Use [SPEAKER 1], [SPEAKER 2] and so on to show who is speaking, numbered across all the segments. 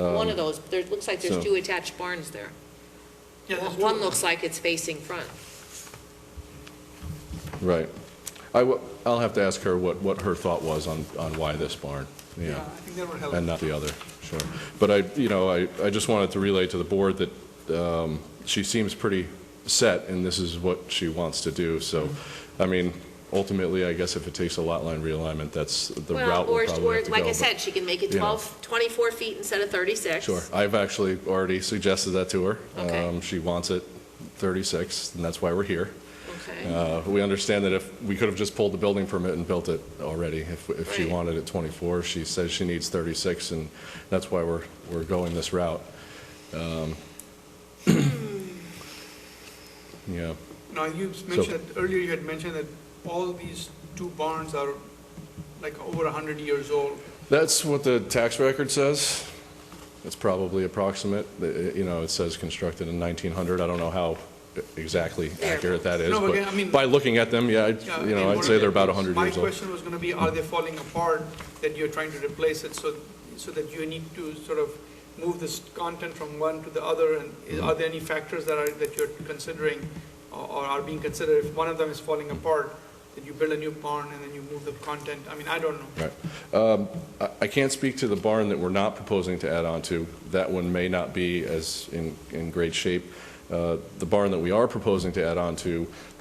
[SPEAKER 1] One of those, there, looks like
[SPEAKER 2] Um, so-
[SPEAKER 1] there's two attached barns there.
[SPEAKER 3] Yeah, there's two
[SPEAKER 1] One
[SPEAKER 3] of
[SPEAKER 1] looks like it's facing front.
[SPEAKER 2] Right. I, wa- I'll have to ask her what, what her thought was on, on why this barn,
[SPEAKER 3] them.
[SPEAKER 2] yeah,
[SPEAKER 3] I think that would help.
[SPEAKER 2] and not the other, sure. But I, you know, I, I just wanted to relay to the board that um, she seems pretty set, and this is what she wants to do, so, I mean, ultimately, I guess if it takes a lot line realignment, that's the
[SPEAKER 1] Well,
[SPEAKER 2] route
[SPEAKER 1] or,
[SPEAKER 2] we'll probably
[SPEAKER 1] or,
[SPEAKER 2] have to go.
[SPEAKER 1] like I
[SPEAKER 2] but-
[SPEAKER 1] said, she can make it
[SPEAKER 2] you know.
[SPEAKER 1] 12, 24 feet instead of 36.
[SPEAKER 2] Sure. I've actually already suggested that to her.
[SPEAKER 1] Okay.
[SPEAKER 2] Um, She wants it 36, and that's why we're here.
[SPEAKER 1] Okay,
[SPEAKER 2] Uh, We understand that if, we could have just pulled the building permit and built it already, if, if she
[SPEAKER 1] Right.
[SPEAKER 2] wanted it 24. She says she needs 36, and that's why we're, we're going this route. Um, Yeah,
[SPEAKER 3] Now, you mentioned, earlier you had mentioned that all these two barns are like over 100 years old.
[SPEAKER 2] that's what the tax record says. It's probably approximate, The- you know, it says constructed in 1900. I don't know how exactly
[SPEAKER 1] Fair.
[SPEAKER 2] accurate that is,
[SPEAKER 3] No, but again, I mean-
[SPEAKER 2] but by looking at them, yeah, I'd-
[SPEAKER 3] Yeah, I
[SPEAKER 2] you
[SPEAKER 3] mean,
[SPEAKER 2] know, I'd
[SPEAKER 3] what
[SPEAKER 2] say
[SPEAKER 3] are
[SPEAKER 2] they're about
[SPEAKER 3] they-
[SPEAKER 2] 100
[SPEAKER 3] My
[SPEAKER 2] years old.
[SPEAKER 3] question was going to be, are they falling apart that you're trying to replace it? So, so that you need to sort of move this content from one to the other? And i-
[SPEAKER 2] Mm-hmm.
[SPEAKER 3] are there any factors that are, that you're considering or or are being considered? If one of them is falling apart, that you build a new barn and then you move the content? I mean, I don't know.
[SPEAKER 2] Right. Um, I I can't speak to the barn that we're not proposing to add on to. That one may not be as in, in great shape. Uh, The barn that we are proposing to add on to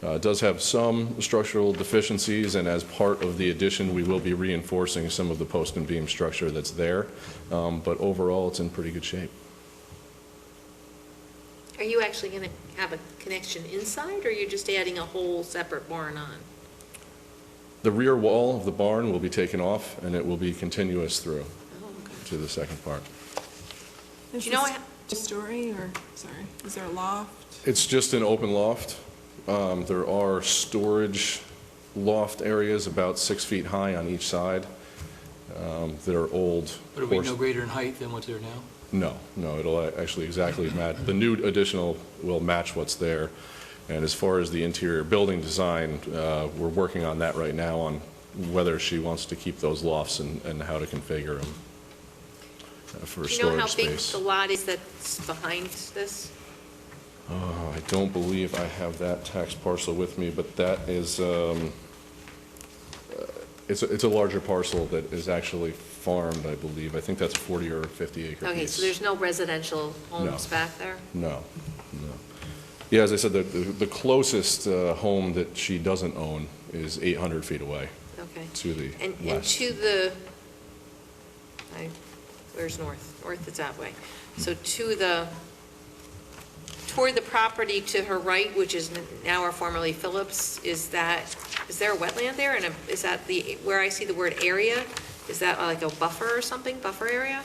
[SPEAKER 2] uh, does have some structural deficiencies, and as part of the addition, we will be reinforcing some of the post and beam structure that's there. Um, But overall, it's in pretty good shape.
[SPEAKER 1] are you actually going to have a connection inside, or you're just adding a whole separate barn on?
[SPEAKER 2] The rear wall of the barn will be taken off, and it will be continuous through
[SPEAKER 1] Oh, okay.
[SPEAKER 2] to the second part.
[SPEAKER 1] Do you know
[SPEAKER 4] Is
[SPEAKER 1] what-
[SPEAKER 4] this a story or, sorry, is there a loft?
[SPEAKER 2] It's just an open loft. Um, There are storage loft areas about six feet high on each side um, that are old.
[SPEAKER 5] But it'll be no
[SPEAKER 2] horse-
[SPEAKER 5] greater in height than what's there now?
[SPEAKER 2] No, no, it'll a- actually exactly match, the new additional will match what's there. And as far as the interior building design, uh, we're working on that right now on whether she wants to keep those lofts and and how to configure them uh, for
[SPEAKER 1] Do you know
[SPEAKER 2] storage
[SPEAKER 1] how big
[SPEAKER 2] space.
[SPEAKER 1] the lot is that's behind this?
[SPEAKER 2] Oh, I don't believe I have that tax parcel with me, but that is, um, uh, it's, a- it's a larger parcel that is actually farmed, I believe. I think that's a 40 or 50 acre piece.
[SPEAKER 1] Okay, so there's no residential homes back there?
[SPEAKER 2] No, no. Yeah, as I said, the, the the closest uh, home that she doesn't own is 800 feet away
[SPEAKER 1] Okay.
[SPEAKER 2] to the
[SPEAKER 1] And, and
[SPEAKER 2] west.
[SPEAKER 1] to the, I- where's north? North is that way. So
[SPEAKER 2] Hmm.
[SPEAKER 1] to the, toward the property to her right, which is now or formerly Phillips, is that, is there a wetland there? And is that the, where I see the word area, is that like a buffer or something, buffer area?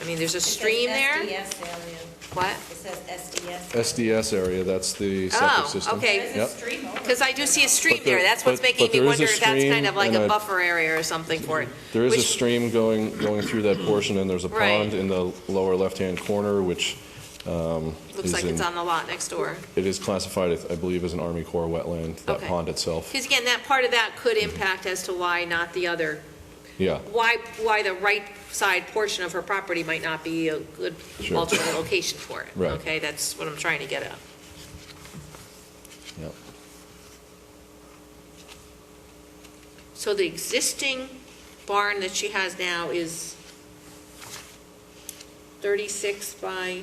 [SPEAKER 1] I mean, there's a stream there?
[SPEAKER 6] It says SDS area.
[SPEAKER 1] What?
[SPEAKER 6] It says SDS.
[SPEAKER 2] SDS area, that's the
[SPEAKER 1] Oh,
[SPEAKER 2] septic system.
[SPEAKER 1] okay.
[SPEAKER 6] There's a
[SPEAKER 2] Yep.
[SPEAKER 6] stream over
[SPEAKER 1] Because I do see a stream
[SPEAKER 2] But there-
[SPEAKER 1] there. That's what's
[SPEAKER 2] but-
[SPEAKER 1] making
[SPEAKER 2] but
[SPEAKER 1] me
[SPEAKER 2] there is a
[SPEAKER 1] wonder if that's kind
[SPEAKER 2] stream
[SPEAKER 1] of like
[SPEAKER 2] and
[SPEAKER 1] a
[SPEAKER 2] a-
[SPEAKER 1] buffer area or something for it.
[SPEAKER 2] There is a
[SPEAKER 1] Which-
[SPEAKER 2] stream going, going through that portion, and there's a
[SPEAKER 1] Right.
[SPEAKER 2] pond in the lower left-hand corner, which um,
[SPEAKER 1] Looks
[SPEAKER 2] is
[SPEAKER 1] like it's
[SPEAKER 2] in-
[SPEAKER 1] on the lot next door.
[SPEAKER 2] It is classified, I believe, as an Army Corps wetland, that
[SPEAKER 1] Okay.
[SPEAKER 2] pond itself.
[SPEAKER 1] Because again, that part of that could impact as to why not the other,
[SPEAKER 2] Yeah,
[SPEAKER 1] why, why the right side portion of her property might not be a good
[SPEAKER 2] Sure.
[SPEAKER 1] alternate location for it.
[SPEAKER 2] Right.
[SPEAKER 1] Okay, that's what I'm trying to get at.
[SPEAKER 2] Yep.
[SPEAKER 1] So the existing barn that she has now is 36 by,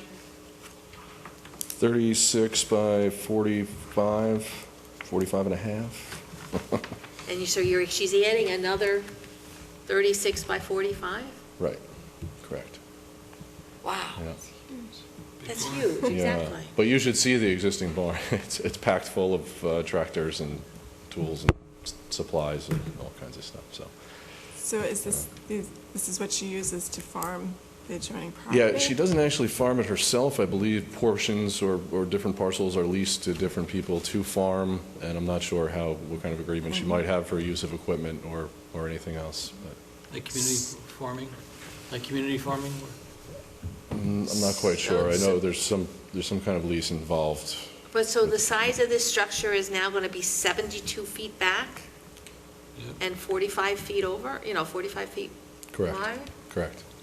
[SPEAKER 2] 36 by 45, 45 and a half?
[SPEAKER 1] and you, so you're, she's adding another 36 by 45?
[SPEAKER 2] Right, correct.
[SPEAKER 1] Wow,
[SPEAKER 2] Yeah.
[SPEAKER 1] that's huge,
[SPEAKER 2] Yeah.
[SPEAKER 1] exactly.
[SPEAKER 2] But you should see the existing barn. It's, it's packed full of uh, tractors and tools and s- supplies and all kinds of stuff, so.
[SPEAKER 4] So is this, is- this is what she uses to farm the adjoining property?
[SPEAKER 2] Yeah, she doesn't actually farm it herself, I believe portions or, or different parcels are leased to different people to farm, and I'm not sure how, what kind of agreement she might have for use of equipment or, or anything else, but
[SPEAKER 5] Like community farming, like community farming?
[SPEAKER 2] I'm I'm not quite sure. I know there's some, there's some kind of lease involved.
[SPEAKER 1] But so the size of this structure is now going to be 72 feet back
[SPEAKER 5] Yeah.
[SPEAKER 1] and 45 feet over, you know, 45 feet wide?
[SPEAKER 2] Correct.